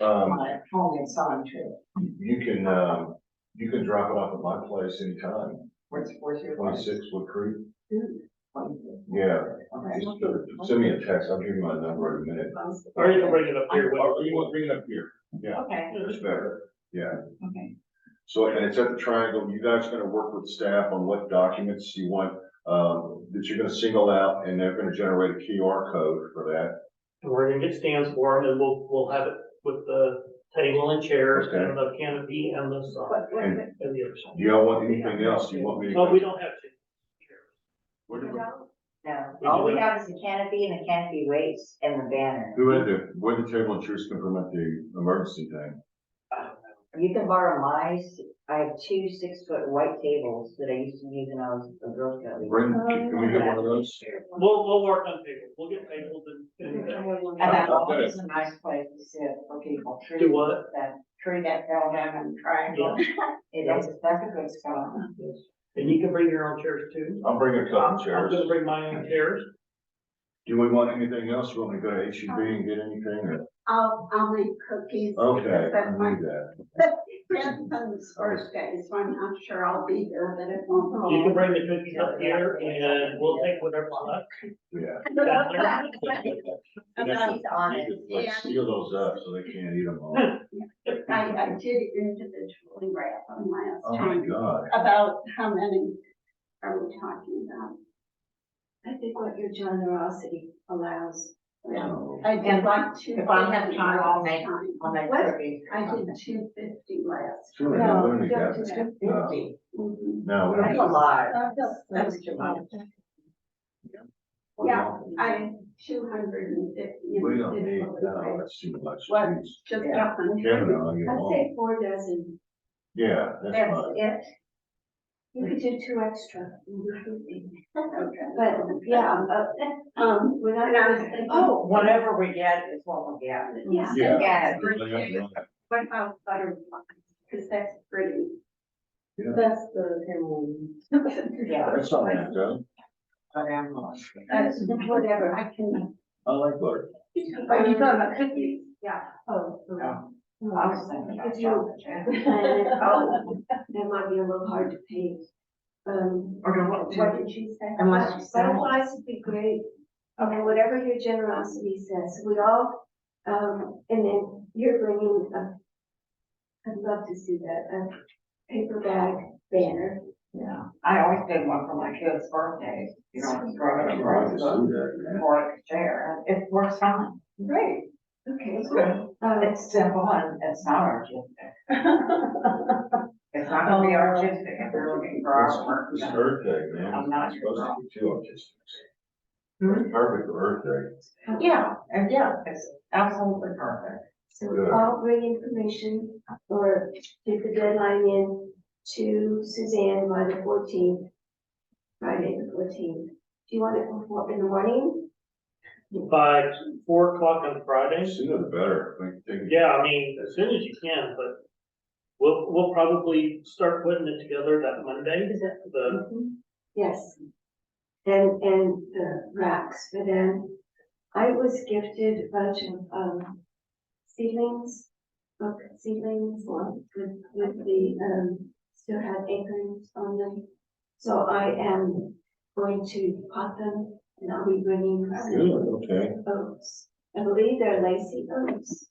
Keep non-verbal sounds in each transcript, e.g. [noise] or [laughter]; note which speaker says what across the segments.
Speaker 1: Um,
Speaker 2: on it, home and on too,
Speaker 1: you can, um, you can drop it off at my place anytime,
Speaker 2: where it's, where's your?
Speaker 1: twenty-six Wood Creek.
Speaker 2: Okay.
Speaker 1: Yeah, just uh, send me a text, I'll give you my number in a minute.
Speaker 3: Or you can bring it up here,
Speaker 1: Or
Speaker 3: whatever
Speaker 1: you
Speaker 3: you
Speaker 1: want,
Speaker 3: want.
Speaker 1: bring it up here. Yeah,
Speaker 2: Okay,
Speaker 1: that's better. Yeah,
Speaker 2: okay,
Speaker 1: so, and it's at the triangle, you guys are gonna work with staff on what documents you want, um, that you're gonna single out, and they're gonna generate a QR code for that.
Speaker 3: And we're gonna get stands for them and we'll, we'll have it with the table and chairs and the canopy and the sign
Speaker 2: but, but, but-
Speaker 3: and the other side.
Speaker 1: Do y'all want anything else you want me to?
Speaker 3: But we don't have to.
Speaker 1: What do we-
Speaker 4: No,
Speaker 3: We
Speaker 4: all
Speaker 3: do
Speaker 4: we
Speaker 3: it.
Speaker 4: have is the canopy and the canopy weights and the banner.
Speaker 1: Who had the, where the table and chairs can permit the emergency thing?
Speaker 4: You can borrow my, s- I have two six foot white tables that I used to use when I was a Girl Scout. leader.
Speaker 1: Bring, can we get one of those?
Speaker 3: We'll, we'll work on tables. We'll get tables and, and
Speaker 2: and that always a nice place to sit for people. Tree-
Speaker 3: Do what?
Speaker 2: That tree that fell down in the triangle,
Speaker 4: It
Speaker 2: that's,
Speaker 4: is,
Speaker 2: that's a good spot.
Speaker 3: and you can bring your own chairs too.
Speaker 1: I'll bring a
Speaker 3: I'm
Speaker 1: couple
Speaker 3: I'm
Speaker 1: chairs.
Speaker 3: gonna bring my own chairs.
Speaker 1: Do we want anything else? You want me to go to H E B and get anything?
Speaker 5: I'll, I'll make cookies.
Speaker 1: or- Okay, I
Speaker 5: That's my
Speaker 1: need that.
Speaker 5: grandson's first day, so I'm not sure I'll be there, but it won't.
Speaker 4: [laughs]
Speaker 5: go
Speaker 3: You can
Speaker 5: long.
Speaker 3: bring the cookies up here and we'll take whatever's left.
Speaker 1: Yeah.
Speaker 5: Uh,
Speaker 4: she's on it.
Speaker 1: You could, Like seal those up so they can't eat them all.
Speaker 5: I, I did individually wrap them
Speaker 1: Oh
Speaker 5: last
Speaker 1: my
Speaker 5: time.
Speaker 1: God.
Speaker 5: About how many are we talking about?
Speaker 6: I think what your generosity allows.
Speaker 1: No.
Speaker 5: I did like two.
Speaker 4: If I have
Speaker 5: fifty
Speaker 4: time, I'll
Speaker 5: last
Speaker 4: make-
Speaker 5: time.
Speaker 4: on that
Speaker 5: What?
Speaker 4: turkey.
Speaker 5: I did two fifty last.
Speaker 1: Sure,
Speaker 5: No,
Speaker 1: let me
Speaker 5: don't
Speaker 1: get
Speaker 5: do
Speaker 1: it.
Speaker 5: that.
Speaker 1: No.
Speaker 5: Fifty.
Speaker 4: Mm-hmm.
Speaker 5: Mhm.
Speaker 1: No, we
Speaker 4: That's
Speaker 1: don't.
Speaker 4: a lot.
Speaker 5: That feels-
Speaker 4: That's too much.
Speaker 1: we
Speaker 5: Yeah,
Speaker 1: don't-
Speaker 5: I, two hundred and fifty.
Speaker 1: We don't need, uh, no, that's too much.
Speaker 5: What?
Speaker 1: Jeez.
Speaker 5: Just a
Speaker 1: Kevin,
Speaker 5: hundred.
Speaker 1: I'll get
Speaker 6: I'd
Speaker 1: along.
Speaker 6: say four dozen.
Speaker 1: Yeah, that's
Speaker 6: That's
Speaker 1: fine.
Speaker 6: it. You could do two extra.
Speaker 5: Okay.
Speaker 6: But, yeah, uh,
Speaker 5: Um,
Speaker 6: when I
Speaker 5: And I
Speaker 6: was
Speaker 5: was
Speaker 6: thinking.
Speaker 4: Oh, whatever we get is what we get.
Speaker 5: yeah.
Speaker 1: Yeah.
Speaker 4: Yeah.
Speaker 5: What about butterflies? Cause that's pretty.
Speaker 1: Yeah.
Speaker 5: That's the.
Speaker 4: Yeah.
Speaker 1: That's all I have done.
Speaker 4: But I'm lost.
Speaker 5: That's whatever, I can.
Speaker 1: I like butter.
Speaker 5: Are you talking about cookies? Yeah.
Speaker 6: Oh.
Speaker 4: No. I
Speaker 6: That
Speaker 4: was thinking
Speaker 6: If
Speaker 4: about
Speaker 6: you-
Speaker 4: chocolate chip.
Speaker 6: um, might be a little hard to paint. Um,
Speaker 4: Or no, what-
Speaker 5: What did you say?
Speaker 4: Unless you sell it.
Speaker 6: butterflies would be great. And whatever your generosity says, we all, um, and then you're bringing uh, a, I'd love to see that, a paper bag banner.
Speaker 4: Yeah.
Speaker 2: I always did one for my kids' birthdays, you know, just growing up, growing up, or a chair, it works fine. Great.
Speaker 6: Okay.
Speaker 2: It's good,
Speaker 6: Um,
Speaker 2: it's simple and it's not artistic. [laughs] It's not gonna be artistic if you're looking for artwork.
Speaker 1: It's Earth Day, man.
Speaker 2: I'm not
Speaker 1: It's supposed
Speaker 2: sure.
Speaker 1: to be two artists.
Speaker 5: Hmm?
Speaker 1: Perfect for Earth Day.
Speaker 2: Yeah, and yeah, it's absolutely perfect.
Speaker 6: So
Speaker 1: Good.
Speaker 6: I'll bring information or get the deadline in to Suzanne by the fourteenth, Friday the fourteenth. Do you want it before, in the morning?
Speaker 3: By four o'clock on Friday.
Speaker 1: Sooner the better. Like, take-
Speaker 3: Yeah, I mean, as soon as you can, but we'll, we'll probably start putting it together that Monday,
Speaker 6: Is that-
Speaker 3: the,
Speaker 6: Mm-hmm. Yes. And, and the racks for them. I was gifted a bunch of, um, seedlings, book seedlings or with, with the, um, still have acorns on them. So I am going to pot them and I'll be bringing
Speaker 1: Good, okay.
Speaker 6: oats. I believe they're lacy oats.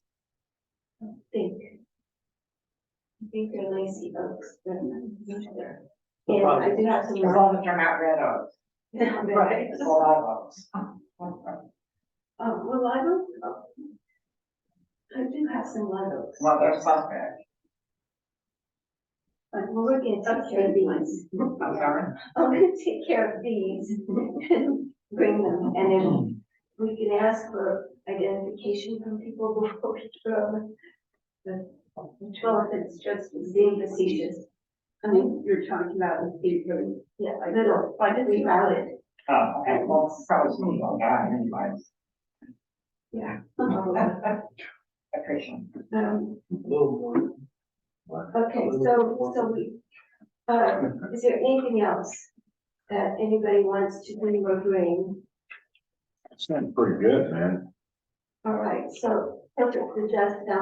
Speaker 6: I think. I think they're lacy oats, but I'm not sure. And I do have some.
Speaker 2: As long as they're not red oaks,
Speaker 6: Right.
Speaker 2: it's a lot of oaks.
Speaker 6: Oh, well, live oak. I do have some live oaks.
Speaker 2: Well, they're suspect,
Speaker 6: But we'll look into
Speaker 5: Okay. [laughs]
Speaker 6: [laughs] these.
Speaker 2: I'm sorry.
Speaker 6: I'm gonna take care of these and bring them, and then we can ask for identification from people before we throw them.
Speaker 5: Well, if it's just
Speaker 6: Being facetious,
Speaker 5: I mean, you're talking about the theater.
Speaker 6: yeah, a little,
Speaker 5: Why did
Speaker 6: we
Speaker 5: we?
Speaker 6: valid. it.
Speaker 2: Oh, okay, well, it's probably some little guy anyways.
Speaker 6: Yeah.
Speaker 5: Uh-huh.
Speaker 2: [laughs] Appreciate it.
Speaker 6: Um,
Speaker 3: the
Speaker 6: okay, so, so we, uh, is there anything else that anybody wants to bring or bring?
Speaker 1: It's pretty good, man.
Speaker 6: All right, so, that's the just um, now